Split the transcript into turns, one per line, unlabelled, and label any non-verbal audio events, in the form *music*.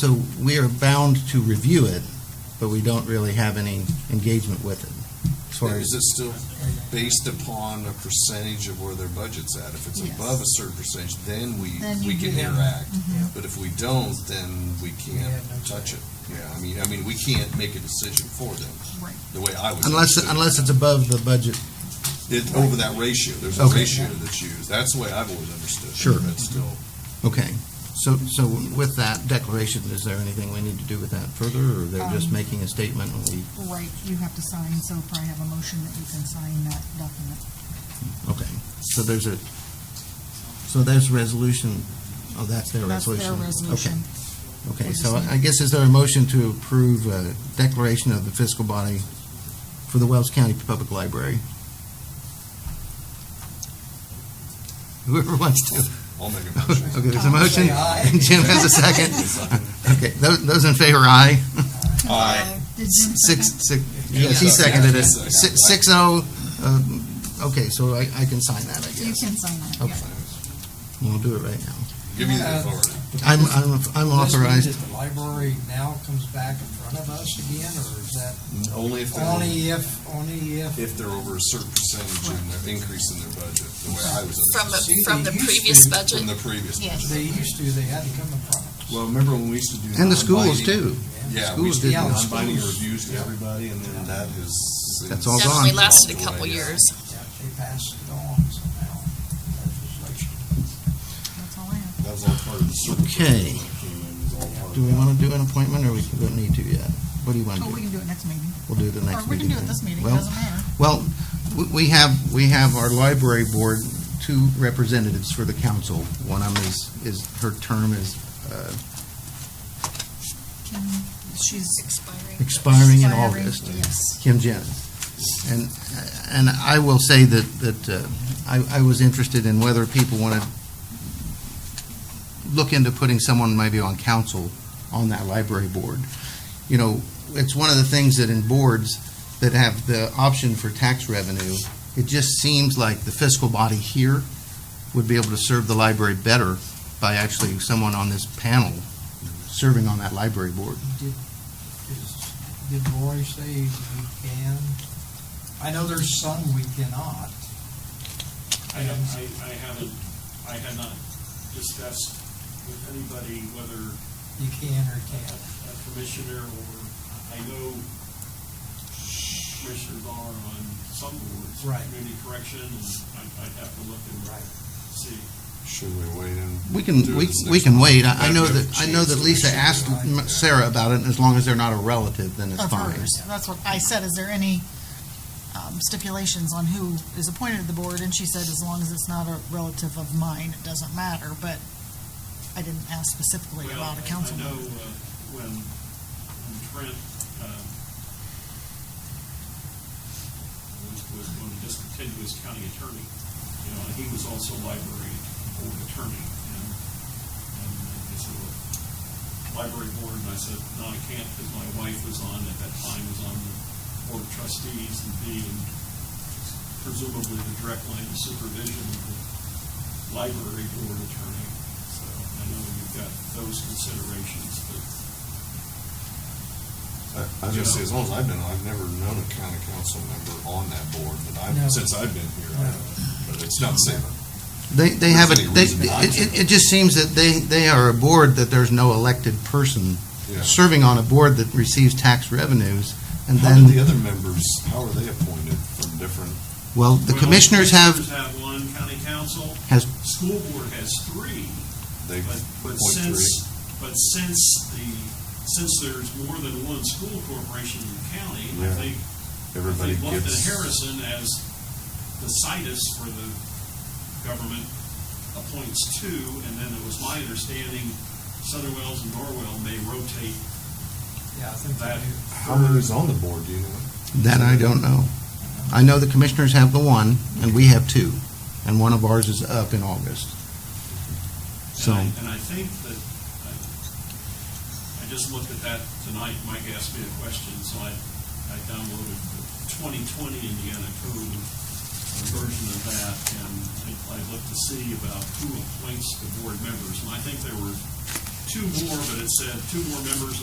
So we are bound to review it, but we don't really have any engagement with it. As far
Is
as,
it still based upon a percentage of where their budget's at? If it's
Yes.
above a certain percentage, then we,
Then
we
you
can
do.
interact.
Mm-hmm.
But if we don't, then we can't touch it. Yeah, I mean, I mean, we can't make a decision for them,
Right.
the way I would.
unless, unless it's above the budget.
It's over that ratio, there's a
Okay.
ratio that's used. That's the way I've always understood it.
Sure.
But still,
Okay. So, so with that declaration, is there anything we need to do with that further, or they're just
Um,
making a statement and we,
Right, you have to sign, so probably have a motion that you can sign that document.
okay. So there's a, so there's resolution, oh, that's their
That's
resolution.
their resolution.
Okay, okay.
We're
So
just-
I guess is there a motion to approve a declaration of the fiscal body for the Wells County Public Library? Whoever wants to. *laughs*
I'll make a motion.
Okay, there's a
Tom,
motion.
say aye.
And *laughs* Jim has a second. Okay, tho- those in favor, aye.
Aye.
Did Jim
Six,
second?
six, yes, he
Yeah.
seconded it.
Yeah.
Six, six oh, um, okay, so I, I can sign that, I
You
guess.
can sign that,
Okay.
yeah.
We'll do it right now.
Give me the
Uh,
authority.
I'm, I'm, I'm
Does this mean
authorized.
that The library now comes back in front of us again, or is that E
Only if they're,
only if, only if?
if they're over a certain percentage in their increase in their budget, the way I was
From,
understood.
See,
the- from the
they used
previous
to-
From
budget,
the previous
Yes.
budget.
They used to, they had to come in front of us.
Well, remember when we used to do.
And the schools
non-binding-
too.
Yeah, we
Schools
did
did that.
non-binding reviews to everybody, and then that is.
That's all Hold on.
definitely lasted a couple years.
Yeah, They passed it on somehow, legislation.
That's all I have.
That was all part of the circle.
Okay.
that came in, was all part
Do we
of
want to do an appointment, or we don't need to yet? What do you want to
Oh,
do?
we can do it next meeting.
We'll do it the
Or
next meeting.
we can do it
then.
this meeting,
Well,
doesn't matter.
Well, we- we have, we have our library board, two representatives for the council. One of them is, is, her term is uh,
Kim, she's. Expiring.
expiring in August.
Yes.
Kim Jennings. And, and I will say that, that uh, I, I was interested in whether people want to look into putting someone maybe on council on that library board. You know, it's one of the things that in boards that have the option for tax revenue, it just seems like the fiscal body here would be able to serve the library better by actually someone on this panel serving on that library board.
Did, is, did Roy say we can? I know there's some we cannot.
I, have- I, I haven't, I had not discussed with anybody whether
You can or
a
can't.
a commissioner or, I know commissioners are on some boards.
Right.
Community correction, and I- I'd have to look and see.
it. Should we wait and?
We can,
do
we,
this
we
next
can
month?
wait. I I know
Maybe we
that, I
have
know
to
that
change
Lisa
the
asked
issue.
M- Sarah about it, and as long as they're not a relative, then it's
Of
fine.
hers, that's what I said, is there any um, stipulations on who is appointed to the board? And she said, as long as it's not a relative of mine, it doesn't matter, but I didn't ask specifically
Well,
about a
I-
council
I know
member.
uh, when when Trent um, was, was going to discontinue his county attorney, you know, and he was also library board attorney, and, and they said, well, library board, and I said, no, I can't, because my wife was on, at that time, was on the board of trustees and being presumably the direct line of supervision of the library board attorney. So I know you've got those considerations, but
I I was gonna say, as long as I've been, I've never known a county council member on that board, but
No.
I've, since I've been here, I
No.
haven't. But it's not saying,
They, they have, a
There's any
they,
reason not
it, it- it just seems that they, they are a board that there's no elected person
yeah.
serving on a board that receives tax revenues, and
How do
then,
the other members, how are they appointed from different?
well, the
Well,
commissioners have,
commissioners have one, county council.
Has-
School board has three,
They
but, but
appoint three?
since, but since the, since there's more than one school corporation in the county,
Yeah.
if they, if
Everybody
they looked at
gets.
Harrison as the situs for the government appoints two, and then it was my understanding Southern Wells and Norwell may rotate
Yeah, I think
that.
they do.
How many's on the board, do you know?
that I don't know. I know the commissioners have the one, and we have two, and one of ours is up in August. So-
And I, and I think that, I, I just looked at that tonight, Mike asked me a question, so I, I downloaded the twenty twenty Indiana code uh, version of that, and I, I looked to see about who appoints the board members, and I think there were two more, but it said two more members of